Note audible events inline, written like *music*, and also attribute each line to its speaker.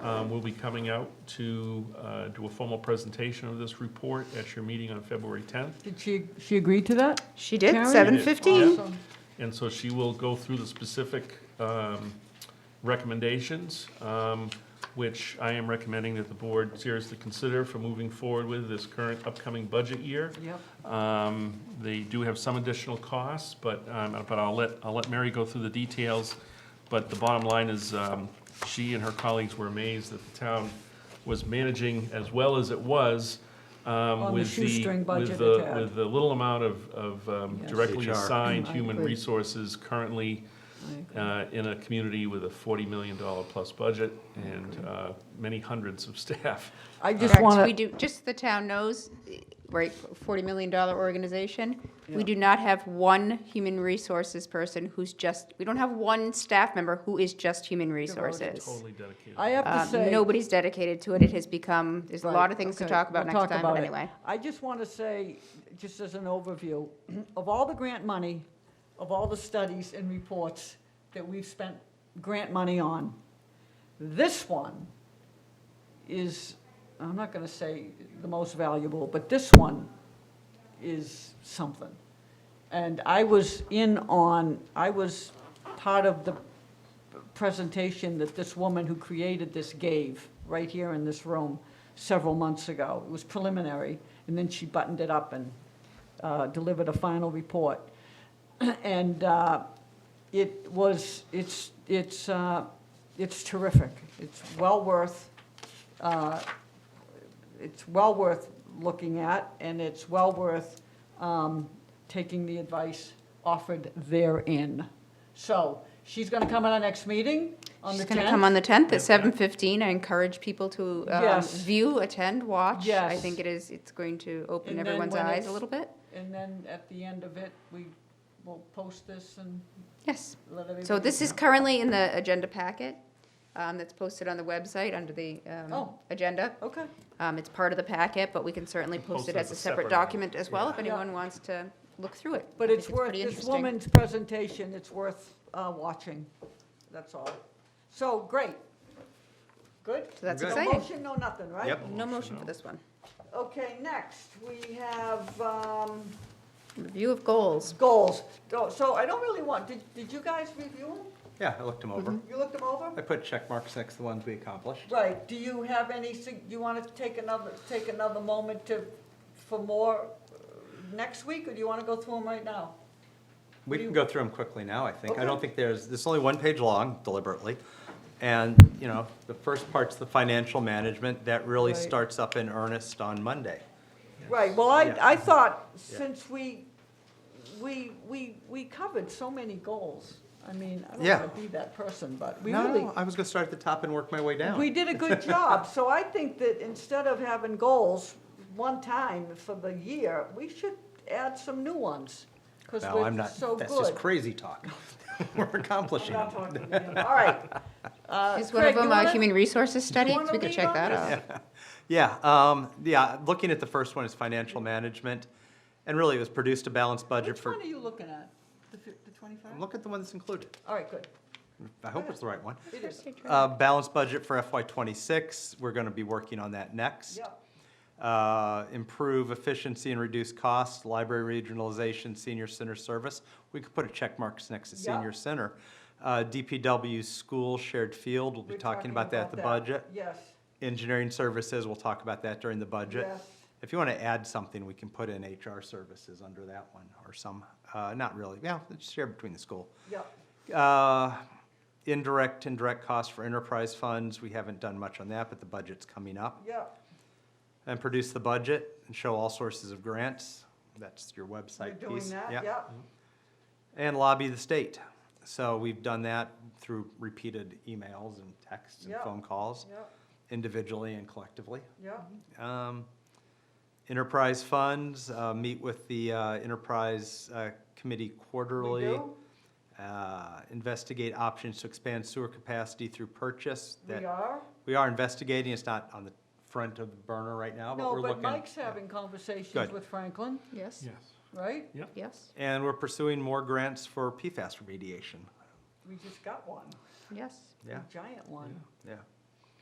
Speaker 1: um, will be coming out to uh, do a formal presentation of this report at your meeting on February 10th.
Speaker 2: Did she, she agree to that?
Speaker 3: She did,
Speaker 2: Karen?
Speaker 3: seven fifteen.
Speaker 2: Awesome.
Speaker 1: And so she will go through the specific um, recommendations, um, which I am recommending that the board seriously consider for moving forward with this current upcoming budget year.
Speaker 2: Yep.
Speaker 1: Um, They do have some additional costs, but, um, but I'll let, I'll let Mary go through the details. But the bottom line is, um, she and her colleagues were amazed that the town was managing as well as it was um,
Speaker 2: the
Speaker 1: with the,
Speaker 2: shoestring budget
Speaker 1: with the,
Speaker 2: it had.
Speaker 1: with the little amount of, of um,
Speaker 2: Yes.
Speaker 1: directly
Speaker 4: HR.
Speaker 1: assigned
Speaker 2: I
Speaker 1: human
Speaker 2: agree.
Speaker 1: resources currently uh, in a community with a forty million dollar plus budget and uh, many hundreds of staff.
Speaker 2: I just
Speaker 3: Correct, we
Speaker 2: want to,
Speaker 3: do, just so the town knows, right, forty million dollar organization, we do not have one human resources person who's just, we don't have one staff member who is just human resources.
Speaker 1: Totally dedicated.
Speaker 2: I have to
Speaker 3: Um,
Speaker 2: say.
Speaker 3: Nobody's dedicated to it, it has become, there's a lot of things to
Speaker 2: Right,
Speaker 3: talk about
Speaker 2: okay,
Speaker 3: next
Speaker 2: we'll
Speaker 3: time, but
Speaker 2: about it.
Speaker 3: anyway.
Speaker 2: I just want to say, just as an overview, of all the grant money, of all the studies and reports that we've spent grant money on, this one is, I'm not going to say the most valuable, but this one is something. And I was in on, I was part of the presentation that this woman who created this gave right here in this room several months ago. It was preliminary, and then she buttoned it up and uh, delivered a final report. *clears throat* And uh, it was, it's, it's, uh, it's terrific. It's well worth, uh, it's well worth looking at, and it's well worth um, taking the advice offered therein. So she's going to come at our next meeting on the
Speaker 3: She's
Speaker 2: 10th.
Speaker 3: gonna come on the tenth at seven fifteen, I encourage people to, um,
Speaker 2: Yes.
Speaker 3: view, attend, watch. I
Speaker 2: Yes.
Speaker 3: think it is, it's going to open
Speaker 2: And then
Speaker 3: everyone's
Speaker 2: when
Speaker 3: eyes
Speaker 2: it's-
Speaker 3: a little bit,
Speaker 2: And then at the end of it, we will post this and
Speaker 3: yes.
Speaker 2: let everybody.
Speaker 3: So this is
Speaker 2: know.
Speaker 3: currently in the agenda packet um, that's posted on the website under the um,
Speaker 2: Oh.
Speaker 3: agenda.
Speaker 2: Okay,
Speaker 3: Um, It's part of the packet, but we can certainly post it as a separate document as well if
Speaker 2: Yeah.
Speaker 3: anyone wants to look through it. I
Speaker 2: but
Speaker 3: think
Speaker 2: it's worth,
Speaker 3: pretty
Speaker 2: this
Speaker 3: interesting.
Speaker 2: woman's presentation, it's worth uh, watching, that's all. So, great. Good?
Speaker 3: So that's
Speaker 4: Good.
Speaker 2: No
Speaker 3: exciting.
Speaker 2: motion, no nothing, right?
Speaker 4: Yep.
Speaker 3: No motion for this one.
Speaker 2: Okay, next, we have um,
Speaker 3: Review of goals.
Speaker 2: goals. So- So I don't really want, did did you guys review them?
Speaker 4: Yeah, I looked them over.
Speaker 2: You looked them over?
Speaker 4: I put check marks next to the ones we accomplished.
Speaker 2: Right, do you have any, sug- you want to take another, take another moment to, for more uh, next week, or do you want to go through them right now?
Speaker 4: We can go through them quickly now, I think. I don't
Speaker 2: Okay.
Speaker 4: think there's, it's only one page long deliberately. And, you know, the first part's the financial management. That really
Speaker 2: Right.
Speaker 4: starts up in earnest on Monday.
Speaker 2: Right, well, I,
Speaker 4: Yeah.
Speaker 2: I thought, since we, we, we, we covered so many goals, I mean, I don't
Speaker 4: Yeah.
Speaker 2: want to be that person, but we
Speaker 4: No,
Speaker 2: really,
Speaker 4: no, I was gonna start at the top and work my way down.
Speaker 2: we did a
Speaker 4: *laughs*
Speaker 2: good job. So I think that instead of having goals one time for the year, we should add some new ones, because
Speaker 4: No, I'm
Speaker 2: we're
Speaker 4: not,
Speaker 2: so good.
Speaker 4: that's just crazy talk. *laughs* We're accomplishing
Speaker 2: I'm not
Speaker 4: it.
Speaker 2: talking to
Speaker 4: *laughs*
Speaker 2: you. All right. Uh,
Speaker 3: Is one of
Speaker 2: Craig, you
Speaker 3: them a
Speaker 2: wanna-
Speaker 3: human resources study?
Speaker 2: wanna
Speaker 3: We could
Speaker 2: lead
Speaker 3: check
Speaker 2: on
Speaker 3: that
Speaker 2: this?
Speaker 3: out.
Speaker 4: Yeah, um, yeah, looking at the first one is financial management. And really, it was produced a balanced budget
Speaker 2: Which
Speaker 4: for,
Speaker 2: one are you looking at? The fif- the 25?
Speaker 4: look at the one that's included.
Speaker 2: All right, good.
Speaker 4: I hope it's the right one.
Speaker 2: It
Speaker 4: *laughs*
Speaker 2: is.
Speaker 4: Uh, Balanced budget for FY '26, we're going to be working on that next.
Speaker 2: Yep.
Speaker 4: Uh, Improve efficiency and reduce costs, library regionalization, senior center service. We could put a check marks next to
Speaker 2: Yeah.
Speaker 4: senior center. Uh, DPW school shared field, we'll be
Speaker 2: We're
Speaker 4: talking about that at the budget.
Speaker 2: Yes,
Speaker 4: Engineering services, we'll talk about that during the budget.
Speaker 2: Yes.
Speaker 4: If you want to add something, we can put in HR services under that one or some, uh, not really, yeah, it's shared between the school.
Speaker 2: yep.
Speaker 4: Uh, Indirect and direct costs for enterprise funds, we haven't done much on that, but the budget's coming up.
Speaker 2: Yeah,
Speaker 4: And produce the budget and show all sources of grants. That's your
Speaker 2: you're
Speaker 4: website
Speaker 2: doing
Speaker 4: piece. Mm-hmm.
Speaker 2: that, yeah.
Speaker 4: And lobby the state. So we've done that through repeated emails and texts and
Speaker 2: Yeah.
Speaker 4: phone calls,
Speaker 2: Yeah,
Speaker 4: individually and collectively.
Speaker 2: yeah,
Speaker 4: Um, Enterprise funds, uh, meet with the uh, enterprise uh, committee
Speaker 2: we
Speaker 4: quarterly
Speaker 2: do,
Speaker 4: uh, investigate options to expand sewer capacity through purchase.
Speaker 2: we
Speaker 4: That
Speaker 2: are.
Speaker 4: We are investigating, it's not on the front of the burner right now, but
Speaker 2: No,
Speaker 4: we're
Speaker 2: but
Speaker 4: looking.
Speaker 2: Mike's having conversations
Speaker 4: Good.
Speaker 2: with Franklin,
Speaker 3: Yes,
Speaker 1: Yes,
Speaker 2: right?
Speaker 3: yes,
Speaker 4: And we're pursuing more grants for PFAS remediation.
Speaker 2: We just got one,
Speaker 3: yes.
Speaker 2: a
Speaker 4: Yeah,
Speaker 2: giant one.
Speaker 4: yeah.